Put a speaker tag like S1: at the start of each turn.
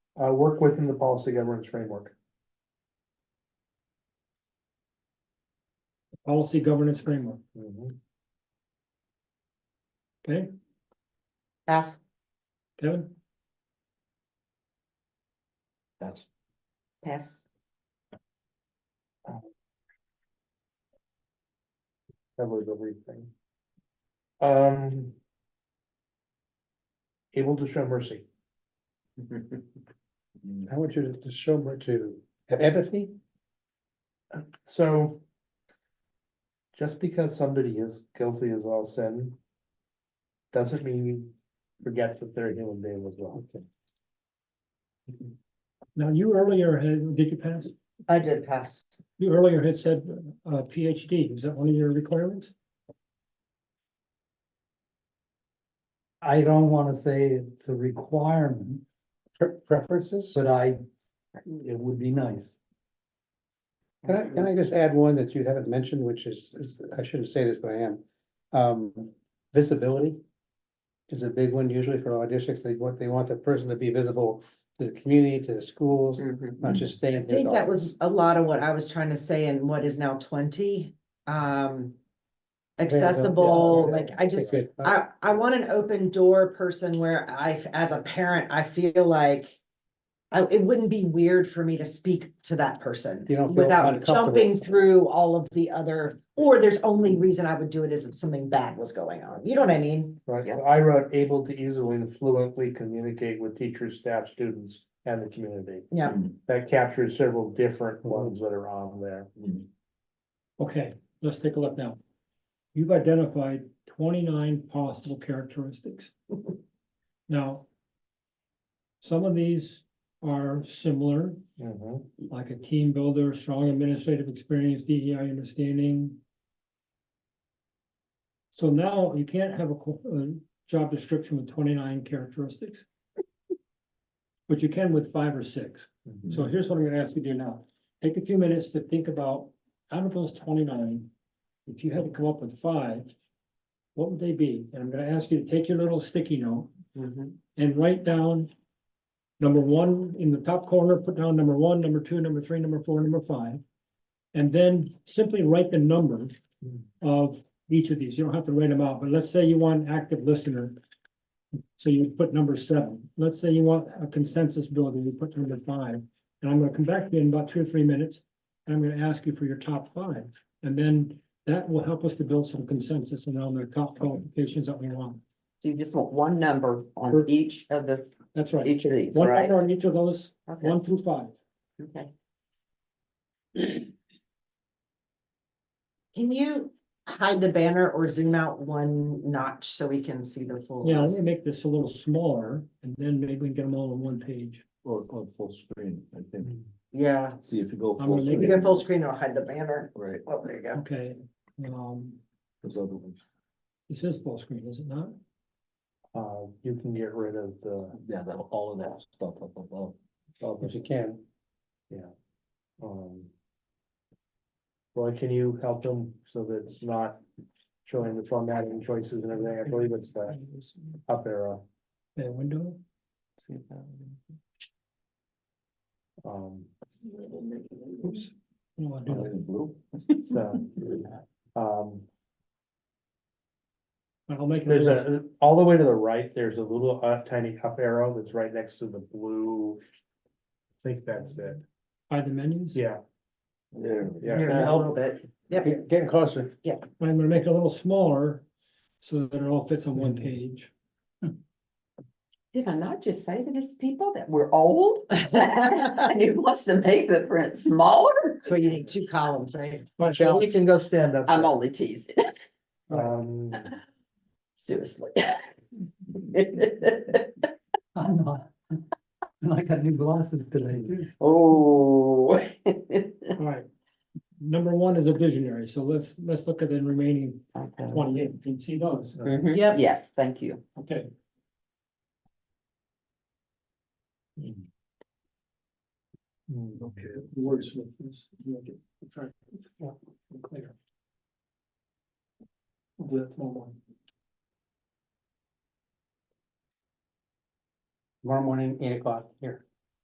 S1: uh, work within the policy governance framework.
S2: policy governance framework,
S1: Mm-hmm.
S2: okay,
S3: Pass.
S2: Kevin?
S4: That's,
S3: Pass.
S1: Covers everything. Um. Able to show mercy.
S5: I want you to- to show more to have empathy.
S1: So. Just because somebody is guilty as all sin. Doesn't mean you forget that they're a human being as well.
S2: Now, you earlier had, did you pass?
S3: I did pass.
S2: You earlier had said uh PhD, is that one of your requirements?
S6: I don't wanna say it's a requirement,
S5: Pre- Preferences?
S6: but I, it would be nice.
S5: Can I, can I just add one that you haven't mentioned, which is, is, I shouldn't say this, but I am. Um, visibility. Is a big one usually for our districts. They want, they want the person to be visible to the community, to the schools, not just staying.
S3: I think that was a lot of what I was trying to say in what is now twenty, um. Accessible, like I just, uh, I, I want an open door person where I, as a parent, I feel like. I, it wouldn't be weird for me to speak to that person
S5: You don't feel
S3: without
S5: uncomfortable.
S3: jumping through all of the other. Or there's only reason I would do it is if something bad was going on, you know what I mean?
S1: Right, so I wrote able to easily and fluently communicate with teachers, staff, students, and the community.
S3: Yeah.
S1: That captures several different ones that are on there.
S2: Okay, let's take a look now. You've identified twenty-nine possible characteristics. Now. Some of these are similar,
S1: Mhm.
S2: like a team builder, strong administrative experience, DEI understanding. So now you can't have a, co- a job description with twenty-nine characteristics. But you can with five or six.
S3: Mm-hmm.
S1: Mm-hmm.
S2: So here's what I'm gonna ask you to do now. Take a few minutes to think about, out of those twenty-nine, if you had to come up with five, what would they be? And I'm gonna ask you to take your little sticky note
S3: Mm-hmm.
S2: and write down number one in the top corner, put down number one, number two, number three, number four, number five. And then simply write the numbers of each of these. You don't have to write them out, but let's say you want active listener. So you put number seven. Let's say you want a consensus builder, you put number five. And I'm gonna come back to you in about two or three minutes, and I'm gonna ask you for your top five. And then that will help us to build some consensus and on the top qualifications that we want.
S7: So you just want one number on
S2: Sure.
S7: each of the,
S2: That's right.
S7: each of these,
S2: One
S7: right?
S2: number on each of those,
S7: Okay,
S2: one through five.
S7: okay.
S3: Can you hide the banner or zoom out one notch so we can see the
S1: Oh,
S3: full?
S2: Yeah, let me
S3: list?
S2: make this a little smaller and then maybe we can get them all on one page.
S4: Or, or full screen, I think.
S3: Yeah,
S4: See if you go.
S2: I'm
S4: full
S2: gonna make
S3: if you
S4: screen,
S3: go full screen, it'll hide the banner.
S4: Right,
S3: Oh, there you go.
S2: Okay, um,
S4: those other ones.
S2: this is full screen, is it not?
S1: Uh, you can get rid of the,
S4: Yeah, that, all of that stuff up above.
S1: of
S5: If
S1: the,
S5: you can.
S1: um. Roy, can you help them so that it's not showing the formatting choices and everything? I believe it's the up arrow.
S2: That window,
S4: See if that-
S1: Um,
S2: oops. I don't wanna do
S4: Are they
S2: that.
S4: in blue?
S1: so. Um,
S2: I'll make
S1: There's
S2: it,
S1: a, all the way to the right, there's a little uh, tiny up arrow that's right next to the blue. I think that's it.
S2: by the menus.
S1: Yeah,
S4: There.
S1: yeah.
S3: Here,
S1: Can I
S3: a
S1: help?
S3: little bit. Yep,
S5: Get- Getting closer.
S2: I'm gonna make it a little smaller so that it all fits on one page.
S7: Did I not just say to this people that we're old? And he wants to make the print smaller?
S3: so you need two columns, right?
S1: Michelle, we can go stand up.
S7: I'm only teasing,
S1: Um,
S7: seriously.
S6: I'm not. I got new glasses today too.
S2: All
S7: Oh.
S2: right. Number one is a visionary, so let's, let's look at the remaining twenty-eight. Can you see those?
S7: Mhm.
S3: Yep.
S7: Yes, thank you.
S2: Okay.
S4: Okay.
S2: Wordsmith is, you'll get, try, yeah, clear. We'll do that tomorrow morning.
S5: Tomorrow morning, eight o'clock here.